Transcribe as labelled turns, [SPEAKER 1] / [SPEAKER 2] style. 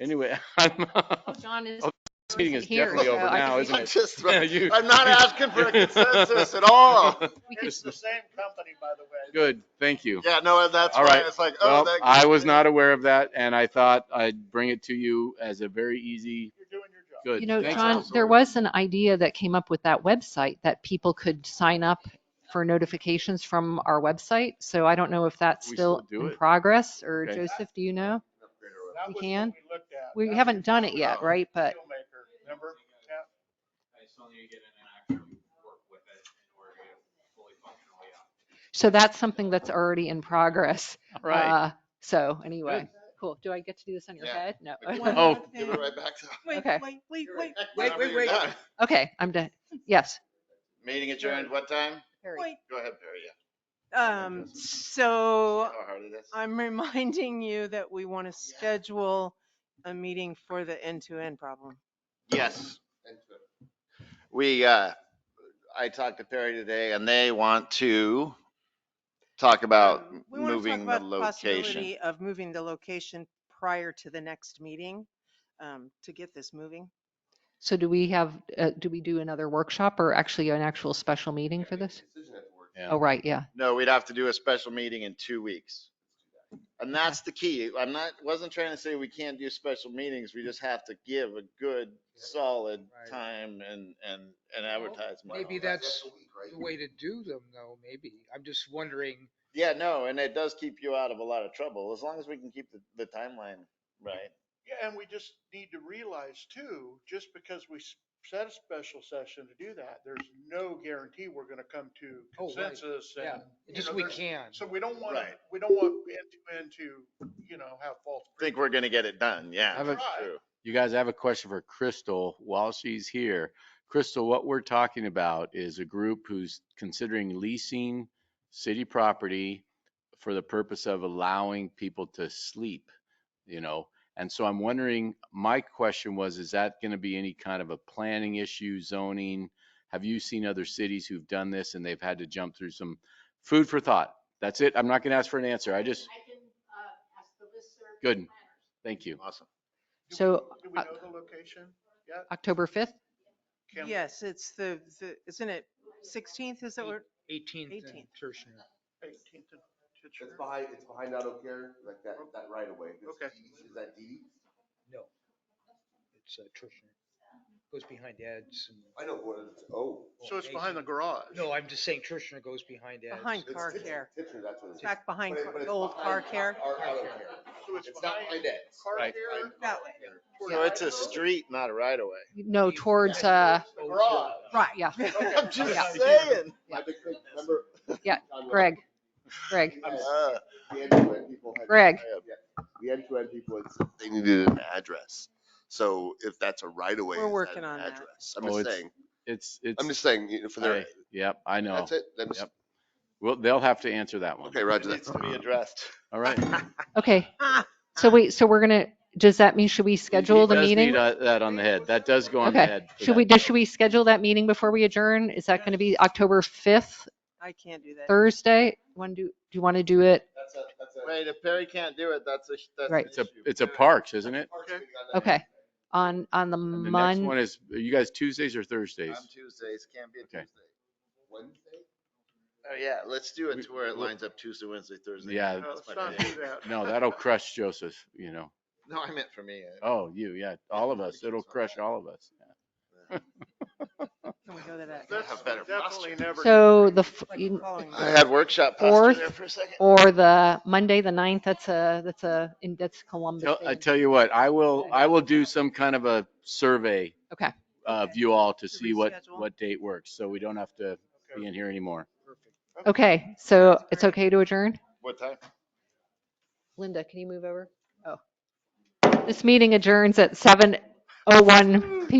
[SPEAKER 1] Anyway, I'm,
[SPEAKER 2] Oh, John is.
[SPEAKER 1] Oh, this meeting is
[SPEAKER 2] here,
[SPEAKER 1] definitely over
[SPEAKER 2] so I
[SPEAKER 1] now,
[SPEAKER 2] think-
[SPEAKER 1] isn't
[SPEAKER 3] I'm
[SPEAKER 1] it?
[SPEAKER 3] just,
[SPEAKER 1] Yeah,
[SPEAKER 3] throw-
[SPEAKER 1] you-
[SPEAKER 3] I'm not asking for a consensus at all.
[SPEAKER 2] we could-
[SPEAKER 4] It's the same company, by the way.
[SPEAKER 1] Good, thank you.
[SPEAKER 3] Yeah, no, that's
[SPEAKER 1] All
[SPEAKER 3] why
[SPEAKER 1] right.
[SPEAKER 3] it's like, oh,
[SPEAKER 1] Well,
[SPEAKER 3] that.
[SPEAKER 1] I was not aware of that and I thought I'd bring it to you as a very easy,
[SPEAKER 4] You're doing your job.
[SPEAKER 1] good.
[SPEAKER 2] You know,
[SPEAKER 1] thanks,
[SPEAKER 2] John,
[SPEAKER 1] Allison.
[SPEAKER 2] there was an idea that came up with that website that people could sign up for notifications from our website. So I don't know if that's
[SPEAKER 1] We
[SPEAKER 2] still
[SPEAKER 1] still do
[SPEAKER 2] in
[SPEAKER 1] it?
[SPEAKER 2] progress or
[SPEAKER 1] Okay.
[SPEAKER 2] Joseph, do you know?
[SPEAKER 4] That was what
[SPEAKER 2] can.
[SPEAKER 4] we looked at.
[SPEAKER 2] We
[SPEAKER 4] That's
[SPEAKER 2] haven't
[SPEAKER 4] your
[SPEAKER 2] done it yet,
[SPEAKER 3] No.
[SPEAKER 2] right? But
[SPEAKER 4] Dealmaker, remember? Yeah.
[SPEAKER 5] I still need to get in and actually work with it in order to get it fully functional, yeah.
[SPEAKER 2] so that's something that's already in progress.
[SPEAKER 1] Right.
[SPEAKER 2] Uh, So anyway, cool. Do I get to do this on your
[SPEAKER 3] Yeah.
[SPEAKER 2] head? No.
[SPEAKER 3] One
[SPEAKER 1] Oh.
[SPEAKER 3] Give it right back to.
[SPEAKER 6] Wait,
[SPEAKER 2] Okay.
[SPEAKER 6] wait, wait,
[SPEAKER 3] Give it
[SPEAKER 6] wait,
[SPEAKER 3] right back
[SPEAKER 6] wait,
[SPEAKER 3] whenever
[SPEAKER 6] wait,
[SPEAKER 3] you're
[SPEAKER 6] wait,
[SPEAKER 3] done.
[SPEAKER 2] Okay, I'm done. Yes.
[SPEAKER 3] Meeting adjourned, what time?
[SPEAKER 2] Harry.
[SPEAKER 6] wait.
[SPEAKER 3] Go ahead, Barry, yeah.
[SPEAKER 6] Um,
[SPEAKER 3] Joseph.
[SPEAKER 6] so
[SPEAKER 3] How hard it is.
[SPEAKER 6] I'm reminding you that we want to schedule a meeting for the end-to-end problem.
[SPEAKER 3] Yes. We, uh, I talked to Perry today and they want to talk about
[SPEAKER 6] Um, we wanna talk
[SPEAKER 3] moving the
[SPEAKER 6] about
[SPEAKER 3] location.
[SPEAKER 6] possibility Of moving the location prior to the next meeting, um, to get this moving.
[SPEAKER 2] So do we have, uh, do we do another workshop or actually an actual special meeting for this?
[SPEAKER 1] Yeah.
[SPEAKER 2] Oh, right, yeah.
[SPEAKER 3] No, we'd have to do a special meeting in two weeks. And that's the key. I'm not, wasn't trying to say we can't do special meetings. We just have to give a good, solid
[SPEAKER 7] Right.
[SPEAKER 3] time and, and, and
[SPEAKER 7] Well,
[SPEAKER 3] advertisement.
[SPEAKER 7] Maybe that's the way to do them though, maybe. I'm just wondering,
[SPEAKER 3] Yeah, no, and it does keep you out of a lot of trouble, as long as we can keep the, the timeline right.
[SPEAKER 4] Yeah, and we just need to realize too, just because we s- set a special session to do that, there's no guarantee we're going to come to
[SPEAKER 7] Oh, right.
[SPEAKER 4] consensus
[SPEAKER 7] Yeah.
[SPEAKER 4] and. you
[SPEAKER 7] just
[SPEAKER 4] know,
[SPEAKER 7] we
[SPEAKER 4] there's-
[SPEAKER 7] can.
[SPEAKER 4] So we don't want, to.
[SPEAKER 3] Right.
[SPEAKER 4] we don't want end to end to, you know, have false.
[SPEAKER 3] Think we're gonna get it done, yeah.
[SPEAKER 1] Have a-
[SPEAKER 3] True.
[SPEAKER 1] You guys, I have a question for Crystal while she's here. Crystal, what we're talking about is a group who's considering leasing city property for the purpose of allowing people to sleep, you know? And so I'm wondering, my question was, is that going to be any kind of a planning issue, zoning? Have you seen other cities who've done this and they've had to jump through some food for thought? That's it. I'm not going to ask for an answer. I just,
[SPEAKER 2] I can uh, ask the listserv.
[SPEAKER 1] Good. thank you.
[SPEAKER 3] Awesome.
[SPEAKER 4] Do we-
[SPEAKER 2] So,
[SPEAKER 4] Do we know
[SPEAKER 2] uh,
[SPEAKER 4] the location yet?
[SPEAKER 2] October 5th?
[SPEAKER 4] Can we-
[SPEAKER 6] Yes, it's the, the, isn't it sixteenth? Is that what?
[SPEAKER 7] eighteenth and
[SPEAKER 6] 18th.
[SPEAKER 7] Tertiary.
[SPEAKER 4] 18th and
[SPEAKER 8] It's
[SPEAKER 4] Titcher?
[SPEAKER 8] behind, it's behind Auto Care, like that, that right away.
[SPEAKER 4] Okay.
[SPEAKER 8] Is that D?
[SPEAKER 7] No. It's uh, Tertiary. Goes behind Ed's. and-
[SPEAKER 8] I know, but it's, oh.
[SPEAKER 4] So it's behind the garage.
[SPEAKER 7] No, I'm just saying Tertiary goes behind Ed's.
[SPEAKER 6] Behind
[SPEAKER 8] it's
[SPEAKER 6] car
[SPEAKER 8] Titchener-
[SPEAKER 6] care,
[SPEAKER 8] Titchener, that's what it is.
[SPEAKER 6] back behind
[SPEAKER 8] But it-
[SPEAKER 6] car-
[SPEAKER 8] but
[SPEAKER 6] the
[SPEAKER 8] it's
[SPEAKER 6] old car
[SPEAKER 8] behind
[SPEAKER 6] care.
[SPEAKER 8] Our Auto Care.
[SPEAKER 4] So it's
[SPEAKER 8] It's not
[SPEAKER 4] behind
[SPEAKER 8] behind Ed's.
[SPEAKER 4] car
[SPEAKER 1] Right.
[SPEAKER 4] care?
[SPEAKER 6] That way.
[SPEAKER 4] towards
[SPEAKER 3] So it's a
[SPEAKER 4] Idaho?
[SPEAKER 3] street, not a right away.
[SPEAKER 2] No, towards, uh,
[SPEAKER 4] Garage.
[SPEAKER 2] right, yeah,
[SPEAKER 3] I'm just
[SPEAKER 2] Yeah.
[SPEAKER 3] saying.
[SPEAKER 8] I think- remember-
[SPEAKER 2] Yeah,
[SPEAKER 8] John,
[SPEAKER 2] Greg, Greg,
[SPEAKER 8] we had,
[SPEAKER 3] Uh,
[SPEAKER 8] The end-to-end people had.
[SPEAKER 2] Greg.
[SPEAKER 8] The end-to-end people, had said they needed an address. So if that's a right away.
[SPEAKER 6] We're
[SPEAKER 8] is that
[SPEAKER 6] working
[SPEAKER 8] an
[SPEAKER 6] on that.
[SPEAKER 8] address? I'm
[SPEAKER 1] Oh,
[SPEAKER 8] just
[SPEAKER 1] it's-
[SPEAKER 8] saying,
[SPEAKER 1] It's, it's.
[SPEAKER 8] I'm just saying, you know, for their,
[SPEAKER 1] I- Yep, I know.
[SPEAKER 8] that's it. I'm just-
[SPEAKER 1] Yep. Well, they'll have to answer that one.
[SPEAKER 8] Okay,
[SPEAKER 3] It
[SPEAKER 8] Roger that.
[SPEAKER 3] needs to be addressed.
[SPEAKER 1] All right.
[SPEAKER 2] okay. So wait, so we're gonna, does that mean, should we schedule the
[SPEAKER 1] He does
[SPEAKER 2] meeting?
[SPEAKER 1] need, uh, That on the head. That does go on the
[SPEAKER 2] Okay.
[SPEAKER 1] head. for
[SPEAKER 2] Should we,
[SPEAKER 1] that.
[SPEAKER 2] does- should we schedule that meeting before we adjourn? Is that gonna be October 5th,
[SPEAKER 6] I can't do that.
[SPEAKER 2] Thursday? When do, do you want to do it?
[SPEAKER 8] That's a, that's a.
[SPEAKER 3] Wait, if Perry can't do it, that's a, that's
[SPEAKER 2] Right.
[SPEAKER 3] an
[SPEAKER 1] It's a,
[SPEAKER 3] issue.
[SPEAKER 1] it's a parks, isn't it?
[SPEAKER 2] Okay, on, on the
[SPEAKER 1] And the next
[SPEAKER 2] Mon,
[SPEAKER 1] one is, are you guys Tuesdays or
[SPEAKER 3] On
[SPEAKER 1] Thursdays?
[SPEAKER 3] Tuesdays, can't be a
[SPEAKER 1] Okay.
[SPEAKER 3] Tuesday.
[SPEAKER 8] Wednesday?
[SPEAKER 3] Oh, yeah, let's do
[SPEAKER 1] We-
[SPEAKER 3] it to where it
[SPEAKER 1] we-
[SPEAKER 3] lines up Tuesday, Wednesday, Thursday.
[SPEAKER 1] Yeah,
[SPEAKER 4] No,
[SPEAKER 3] That's
[SPEAKER 4] let's
[SPEAKER 3] my
[SPEAKER 4] not
[SPEAKER 3] idea.
[SPEAKER 4] do that.
[SPEAKER 1] no, that'll crush Joseph, you know.
[SPEAKER 3] No, I meant for me. I-
[SPEAKER 1] Oh, you, yeah, all of us. It'll crush all of us.
[SPEAKER 6] Can we go to that?
[SPEAKER 4] That's
[SPEAKER 3] Have better
[SPEAKER 4] definitely
[SPEAKER 3] posture.
[SPEAKER 4] never.
[SPEAKER 2] so the, f-
[SPEAKER 6] Like
[SPEAKER 2] you-
[SPEAKER 6] following
[SPEAKER 3] I had workshop posture
[SPEAKER 2] Fourth.
[SPEAKER 3] there for a second.
[SPEAKER 2] or the Monday, the 9th, that's a, that's a, in- that's Columbus
[SPEAKER 1] Tell- uh, I
[SPEAKER 2] Day.
[SPEAKER 1] tell you what, I will, I will do some kind of a survey
[SPEAKER 2] Okay.
[SPEAKER 1] of you all to
[SPEAKER 6] To
[SPEAKER 1] see what,
[SPEAKER 6] reschedule.
[SPEAKER 1] what date works. So we don't have to be in here anymore.
[SPEAKER 7] Perfect.
[SPEAKER 2] Okay, so it's okay to adjourn?
[SPEAKER 3] What time?
[SPEAKER 2] Linda, can you move over? Oh. This meeting adjourns at 7:01 PM.